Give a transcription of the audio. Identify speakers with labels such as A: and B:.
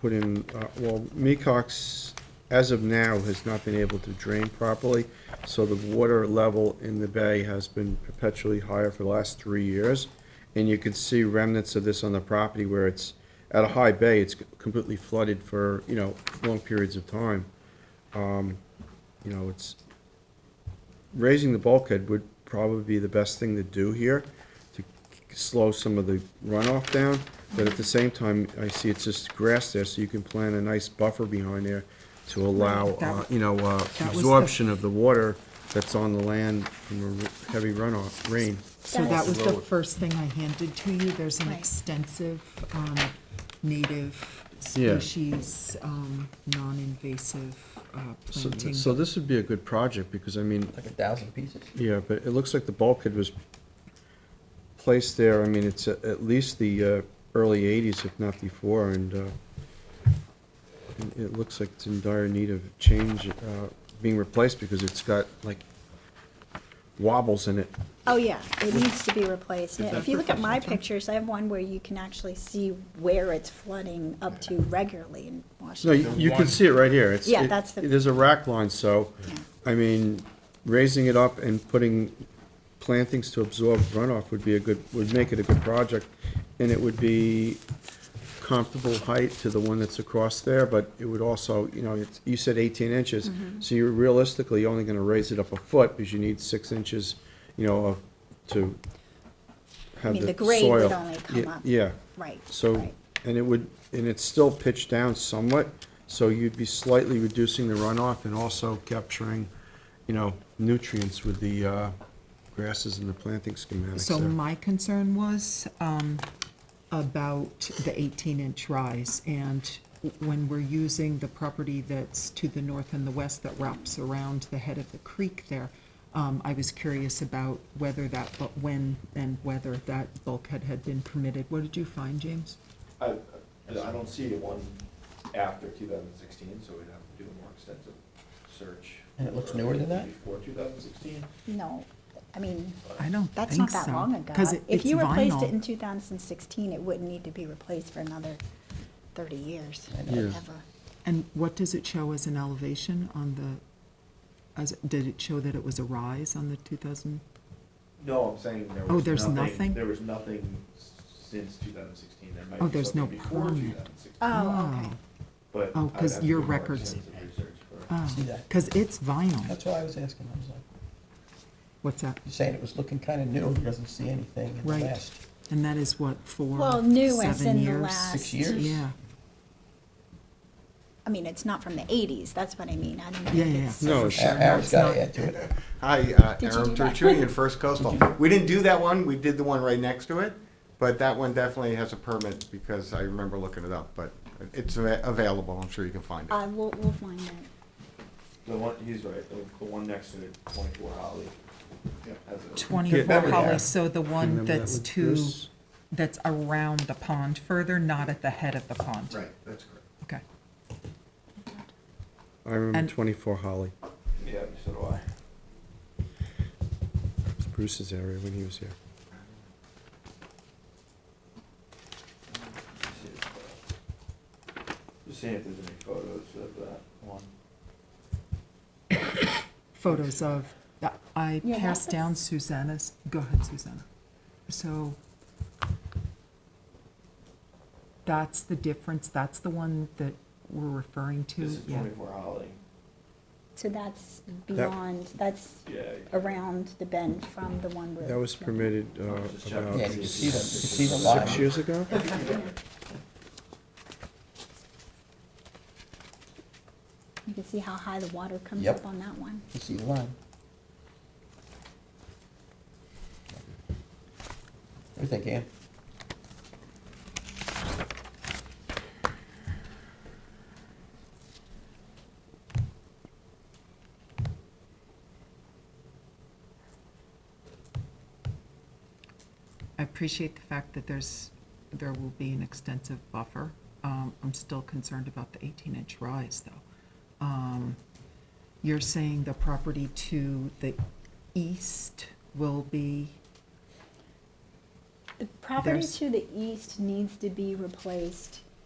A: put in, uh, well, Mecox, as of now, has not been able to drain properly, so the water level in the bay has been perpetually higher for the last three years. And you can see remnants of this on the property where it's, at a high bay, it's completely flooded for, you know, long periods of time. Um, You know, it's, raising the bulkhead would probably be the best thing to do here to slow some of the runoff down, but at the same time, I see it's just grass there, so you can plant a nice buffer behind there to allow,
B: Right, that-
A: uh, you know, uh,
B: the-
A: absorption of the water that's on the land from a r- heavy runoff, rain.
B: So that
C: That's-
B: was the first thing I handed to you. There's an
C: Right.
B: extensive um, native
A: Yeah.
B: species, um, non-invasive uh,
A: So-
B: planting.
A: So this would be a good project, because I mean,
D: Like a thousand pieces?
A: Yeah, but it looks like the bulkhead was placed there, I mean, it's a- at least the uh, early 80s, if not before, and uh, and it looks like it's in dire need of change, uh, being replaced, because it's got like wobbles in it.
C: Oh, yeah, it needs to be replaced.
A: Is that
C: If you look at my
A: professional?
C: pictures, I have one where you can actually see where it's flooding up to regularly in
A: No,
C: Washington.
A: you you can see it right here. It's-
C: Yeah,
A: it-
C: that's the-
A: There's a rack line, so,
C: Yeah.
A: I mean, raising it up and putting plantings to absorb runoff would be a good, would make it a good project. And it would be comparable height to the one that's across there, but it would also, you know, it's- you said 18 inches.
C: Mm-hmm.
A: So you're realistically only going to raise it up a foot because you need six inches, you know, of- to have the soil.
C: mean, the grade would only come
A: Ye-
C: up.
A: Yeah.
C: Right,
A: So,
C: right.
A: and it would, and it's still pitched down somewhat, so you'd be slightly reducing the runoff and also capturing, you know, nutrients with the uh, grasses and the planting schematics
B: So
A: there.
B: my concern was um, about the 18-inch rise, and when we're using the property that's to the north and the west that wraps around the head of the creek there, um, I was curious about whether that, but when and whether that bulkhead had been permitted. What did you find, James?
E: I, I don't see one after two thousand sixteen, so we'd have to do a more extensive search.
D: And it looks
E: for
D: newer than that?
E: Before two thousand sixteen.
C: No, I mean,
B: I don't think so.
C: that's not that long ago.
B: 'Cause it-
C: If
B: it's
C: you replaced it
B: vinyl.
C: in 2016, it wouldn't need to be replaced for another 30 years,
A: Yeah.
C: ever.
B: And what does it show as an elevation on the, as, did it show that it was a rise on the 2000?
E: No, I'm saying there was
B: Oh,
E: nothing.
B: there's nothing?
E: There was nothing s- since two thousand sixteen, there
B: Oh,
E: might be
B: there's no
E: something before two
B: permit.
E: thousand sixteen.
C: Oh, okay.
B: Wow.
E: But
B: Oh,
E: I'd
B: 'cause
E: have to
B: your
E: do more
B: records-
E: extensive research for-
B: Oh,
D: See that?
B: because it's vinyl.
D: That's what I was asking, I was like,
B: What's that?
D: you're saying it was looking kinda new, it doesn't see anything in the
B: Right.
D: last.
B: And that is what, four,
C: Well, new as
B: seven
C: in the
B: years?
C: last.
D: Six years?
B: Yeah,
C: I mean, it's not from the 80s, that's what I mean. I don't
B: Yeah,
C: think
B: yeah,
C: it's-
B: yeah.
A: No,
D: A-
A: it's-
D: Aaron's
B: it's
D: gotta
B: not.
D: add to it.
F: Hi, uh,
C: Did you
F: Aaron
C: do that?
F: Tertullian, First Coastal. We didn't do that one, we did the one right next to it, but that one definitely has a permit because I remember looking it up, but it's a- available, I'm sure you can find it.
C: Uh, we'll, we'll find out.
E: The one, he's right, the, the one next to it, twenty-four Holly. has a-
B: twenty-four
D: Remember
B: Holly,
D: that.
B: so the one
A: Remember that
B: that's
A: with
B: two,
A: Bruce?
B: that's around the pond further, not at the head of the pond.
E: Right, that's correct.
B: Okay.
A: I remember
B: and-
A: 24 Holly,
E: Yeah, so do I.
A: It was Bruce's area when he was here.
E: Just seeing if there's any photos of that one.
B: Photos of, I
C: Yeah,
B: passed
C: that's-
B: down Susanna's, go ahead, Susanna. So that's the difference, that's the one that we're referring to,
E: This is
B: yeah.
E: twenty-four Holly.
C: So that's beyond, that's
E: Yeah.
C: around the bend from the one where.
A: That was permitted uh,
E: Just check.
A: about
D: Yeah, you can see them, you can see the
A: six
D: line.
A: years ago?
C: You can see how high the water comes
D: Yep.
C: up on that one.
D: You see the line. What do you think, Ann?
B: I appreciate the fact that there's, there will be an extensive buffer. Um, I'm still concerned about the 18-inch rise, though. Um, You're saying the property to the east will be,
C: The property
B: There's-
C: to the east needs to be replaced